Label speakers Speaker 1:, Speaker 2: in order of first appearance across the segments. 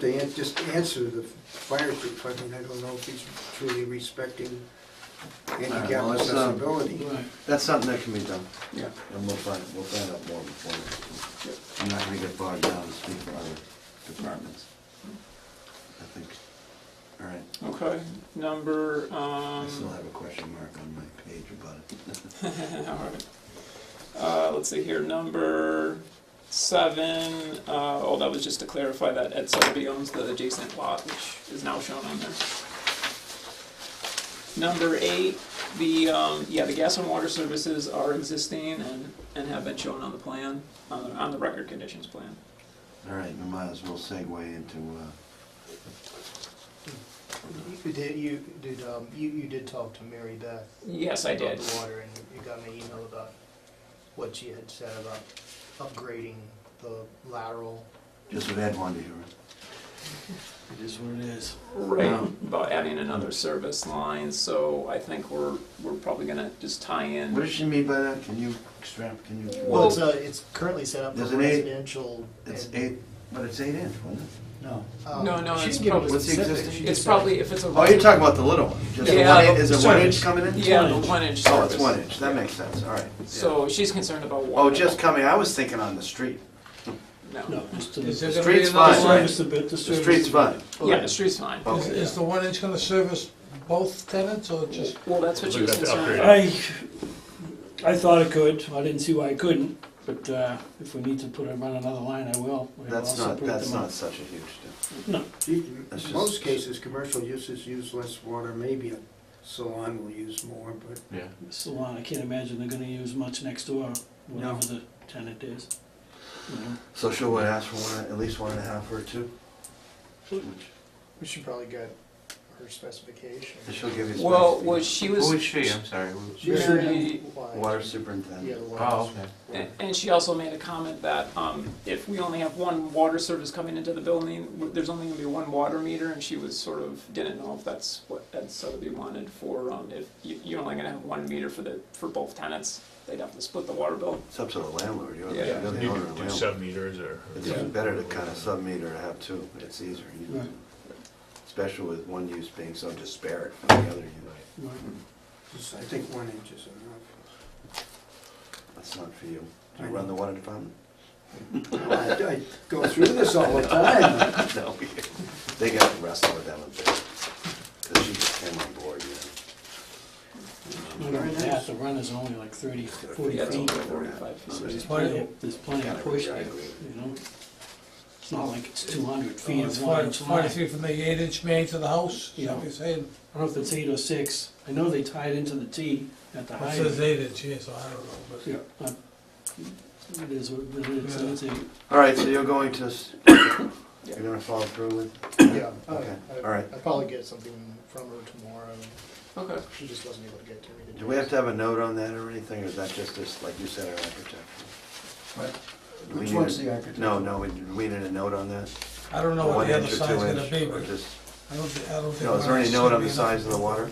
Speaker 1: To an- just answer the fire chief, I mean, I don't know if he's truly respecting handicap
Speaker 2: Well, it's, um,
Speaker 1: accessibility.
Speaker 2: That's something that can be done,
Speaker 1: Yeah.
Speaker 2: and we'll find, we'll find out more before. I'm not gonna get bogged down and speak for other departments. I think, all right,
Speaker 3: Okay, number,
Speaker 2: I
Speaker 3: um,
Speaker 2: still have a question mark on my page about it.
Speaker 3: alright. Uh, let's see here, number seven, uh, oh, that was just to clarify that Ed Sotheby owns the adjacent lot, which is now shown on there. Number eight, the, um, yeah, the gas and water services are existing and, and have been shown on the plan, on the, on the record conditions plan.
Speaker 2: All right, we might as well segue into, uh,
Speaker 4: You did, you did, um, you, you did talk to Mary Beth
Speaker 3: Yes, I did.
Speaker 4: about the water, and you got my email about what she had said about upgrading the lateral.
Speaker 2: just what Ed wanted to hear.
Speaker 5: It is what it is.
Speaker 3: Right,
Speaker 2: Um,
Speaker 3: about adding another service line, so I think we're, we're probably gonna just tie in.
Speaker 2: What does she mean by that? Can you extract, can you?
Speaker 4: Well,
Speaker 3: Well-
Speaker 4: it's, uh, it's currently set up for
Speaker 2: There's an eight-
Speaker 4: residential.
Speaker 2: It's
Speaker 4: and,
Speaker 2: eight, but it's eight inch, wasn't it?
Speaker 5: No.
Speaker 4: um,
Speaker 3: No, no,
Speaker 4: she
Speaker 3: it's
Speaker 4: didn't give
Speaker 3: probably-
Speaker 4: us
Speaker 2: What's the
Speaker 4: specifics,
Speaker 2: existing-
Speaker 4: she
Speaker 3: It's
Speaker 4: just said-
Speaker 3: probably, if it's a.
Speaker 2: Oh, you're talking about the little one, just a
Speaker 3: Yeah,
Speaker 2: one, in-
Speaker 3: the
Speaker 2: is it one
Speaker 5: service.
Speaker 2: inch coming in?
Speaker 3: Yeah, the
Speaker 5: inch.
Speaker 3: one inch.
Speaker 2: Oh, it's
Speaker 3: service.
Speaker 2: one inch, that makes sense, all right.
Speaker 3: So she's concerned about
Speaker 2: Oh,
Speaker 3: water.
Speaker 2: just coming, I was thinking on the street.
Speaker 3: No.
Speaker 5: No, just to
Speaker 6: Is
Speaker 5: the
Speaker 2: The
Speaker 6: there gonna be
Speaker 2: street's
Speaker 6: another
Speaker 2: fine,
Speaker 6: service?
Speaker 5: service, a bit, the
Speaker 2: The
Speaker 5: service.
Speaker 2: street's fine.
Speaker 3: Yeah, the street's fine.
Speaker 2: Oh.
Speaker 6: Is, is the one inch gonna service both tenants or just?
Speaker 3: Well, that's what she
Speaker 7: We're
Speaker 3: was
Speaker 7: gonna have to
Speaker 3: concerned about.
Speaker 5: I, I thought it could, I didn't see why it couldn't, but, uh, if we need to put it on another line, I will. We'll
Speaker 2: That's not,
Speaker 5: separate
Speaker 2: that's
Speaker 5: them out.
Speaker 2: not such a huge difference.
Speaker 1: In
Speaker 2: That's just-
Speaker 1: most cases, commercial uses use less water, maybe a salon will use more, but
Speaker 5: Salon, I can't imagine they're gonna use much next door, whatever the tenant is. You know,
Speaker 2: So she'll would ask for one, at least one and a half or two? Which-
Speaker 4: We should probably get her specification.
Speaker 2: and She'll give you.
Speaker 3: Well,
Speaker 2: specific-
Speaker 3: was she
Speaker 7: Who
Speaker 3: was,
Speaker 7: is she? I'm sorry. who-
Speaker 3: Mary-
Speaker 2: Water
Speaker 4: Yeah, the
Speaker 2: superintendent.
Speaker 4: water.
Speaker 7: Oh, okay.
Speaker 3: a- and she also made a comment that um, if we only have one water service coming into the building, w- there's only gonna be one water meter, and she was sort of didn't know if that's what Ed Sotheby wanted for um, if you, you're only gonna have one meter for the for both tenants, they'd have to split the water bill.
Speaker 2: It's up to the landlord, you're the
Speaker 3: Yeah.
Speaker 2: you're the
Speaker 7: You
Speaker 2: owner
Speaker 7: could
Speaker 2: of the
Speaker 7: do
Speaker 2: landlord.
Speaker 7: sub meters or.
Speaker 2: It's even better to kind of sub-meter to have two, it's easier, you know.
Speaker 5: Right.
Speaker 2: Especially with one use being so disparate from the other use.
Speaker 5: right.
Speaker 1: just- I think one inch is enough.
Speaker 2: That's not for you. Do you run the water department?
Speaker 1: I I go through this all the time.
Speaker 2: No. They got to wrestle with that one bit, because she just came on board, you know.
Speaker 5: Whatever that, the run is only like thirty, forty
Speaker 3: Yeah, it's
Speaker 5: feet.
Speaker 3: only 45 feet.
Speaker 2: So
Speaker 5: There's
Speaker 2: it's-
Speaker 5: plenty, of- there's plenty of
Speaker 2: Yeah, I
Speaker 5: push there,
Speaker 2: agree.
Speaker 5: you know? It's not like it's two hundred feet
Speaker 6: Oh, It's
Speaker 5: of one
Speaker 6: forty,
Speaker 5: inch line.
Speaker 6: forty feet from the eight inch main to the house, is that what you're saying?
Speaker 5: I don't know if it's eight or six. I know they tied into the T at the
Speaker 6: It
Speaker 5: height.
Speaker 6: says eight inch, yeah, so I don't know, but.
Speaker 5: Yeah. uh, It is what it is, so it's eight.
Speaker 2: All right, so you're going to, s- you're gonna follow through with,
Speaker 4: Yeah, I-
Speaker 2: Okay,
Speaker 4: Oh, I-
Speaker 2: all right.
Speaker 4: I'll probably get something from her tomorrow,
Speaker 3: Okay.
Speaker 4: she just wasn't able to get to me today.
Speaker 2: do we have to have a note on that or anything, or is that just this, like you said, our architect? Do we
Speaker 1: Which
Speaker 2: need
Speaker 1: one's
Speaker 2: a-
Speaker 1: the architect?
Speaker 2: No, no, we, we need a note on that?
Speaker 6: I don't know what
Speaker 2: One
Speaker 6: the other
Speaker 2: inch or
Speaker 6: side's
Speaker 2: two
Speaker 6: gonna
Speaker 2: inch,
Speaker 6: be,
Speaker 2: or
Speaker 6: but
Speaker 2: just,
Speaker 6: I don't, thi- I don't think.
Speaker 2: no, is there any
Speaker 6: ours
Speaker 2: note on
Speaker 6: should
Speaker 2: the
Speaker 6: be
Speaker 2: size of the water?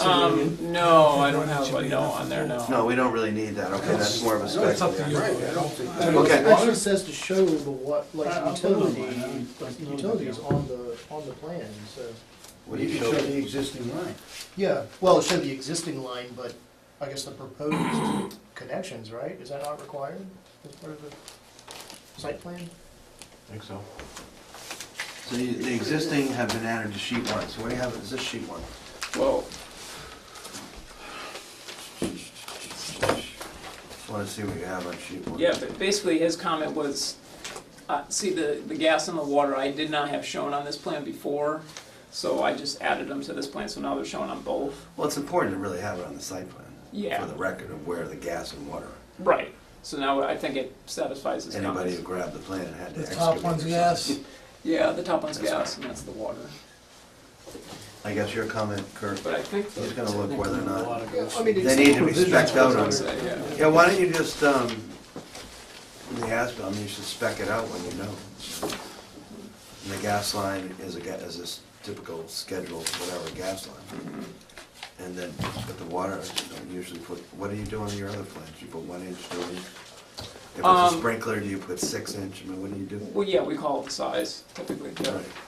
Speaker 3: Um, no, I don't have a no on there. No.
Speaker 2: No, we don't really need that, okay, that's more of a
Speaker 6: Oh. No,
Speaker 2: spec.
Speaker 6: it's up to you.
Speaker 1: Right, I don't think that-
Speaker 2: Okay.
Speaker 4: It actually says to show the what, like
Speaker 5: I- I'll put it on
Speaker 4: utility,
Speaker 5: mine, I don't-
Speaker 4: utilities on the, on the plan, so.
Speaker 2: What do you
Speaker 1: can show the
Speaker 2: show?
Speaker 1: existing line.
Speaker 4: Yeah, well, show the existing line, but I guess the proposed connections, right? Is that not required as part of the site plan?
Speaker 2: think so. So you- the existing have been added to sheet one, so what do you have, is this sheet one?
Speaker 3: Well,
Speaker 2: Just wanna see what you have on sheet one.
Speaker 3: yeah, but basically his comment was, uh, see, the, the gas and the water, I did not have shown on this plan before, so I just added them to this plan, so now they're shown on both.
Speaker 2: Well, it's important to really have it on the site plan.
Speaker 3: Yeah.
Speaker 2: For the record of where the gas and water. are.
Speaker 3: Right. So now I think it satisfies his
Speaker 2: Anybody
Speaker 3: comments.
Speaker 2: who grabbed the plan and had to
Speaker 6: The
Speaker 2: excavate.
Speaker 6: top one's
Speaker 2: or
Speaker 6: gas,
Speaker 2: something.
Speaker 3: Yeah, the top one's gas and that's the water,
Speaker 2: I guess your comment, Kurt,
Speaker 3: but I think,
Speaker 2: he's gonna look whether or not,
Speaker 4: I mean,
Speaker 2: they need to be
Speaker 4: provisions
Speaker 2: specked out
Speaker 4: for
Speaker 2: on
Speaker 3: I'd
Speaker 4: it.
Speaker 2: it.
Speaker 3: say, yeah.
Speaker 2: Yeah, why don't you just, um, in the ASBIL, I mean, you should spec it out when you know. And the gas line is a, ga- is this typical scheduled, whatever, gas line. And then, but the water, you don't usually put, what do you do on your other plans? You put one inch, two inch? If it's a
Speaker 3: Um,
Speaker 2: sprinkler, do you put six inch, I mean, what do you do?
Speaker 3: Well, yeah, we call it the size typically, yeah.
Speaker 2: Right.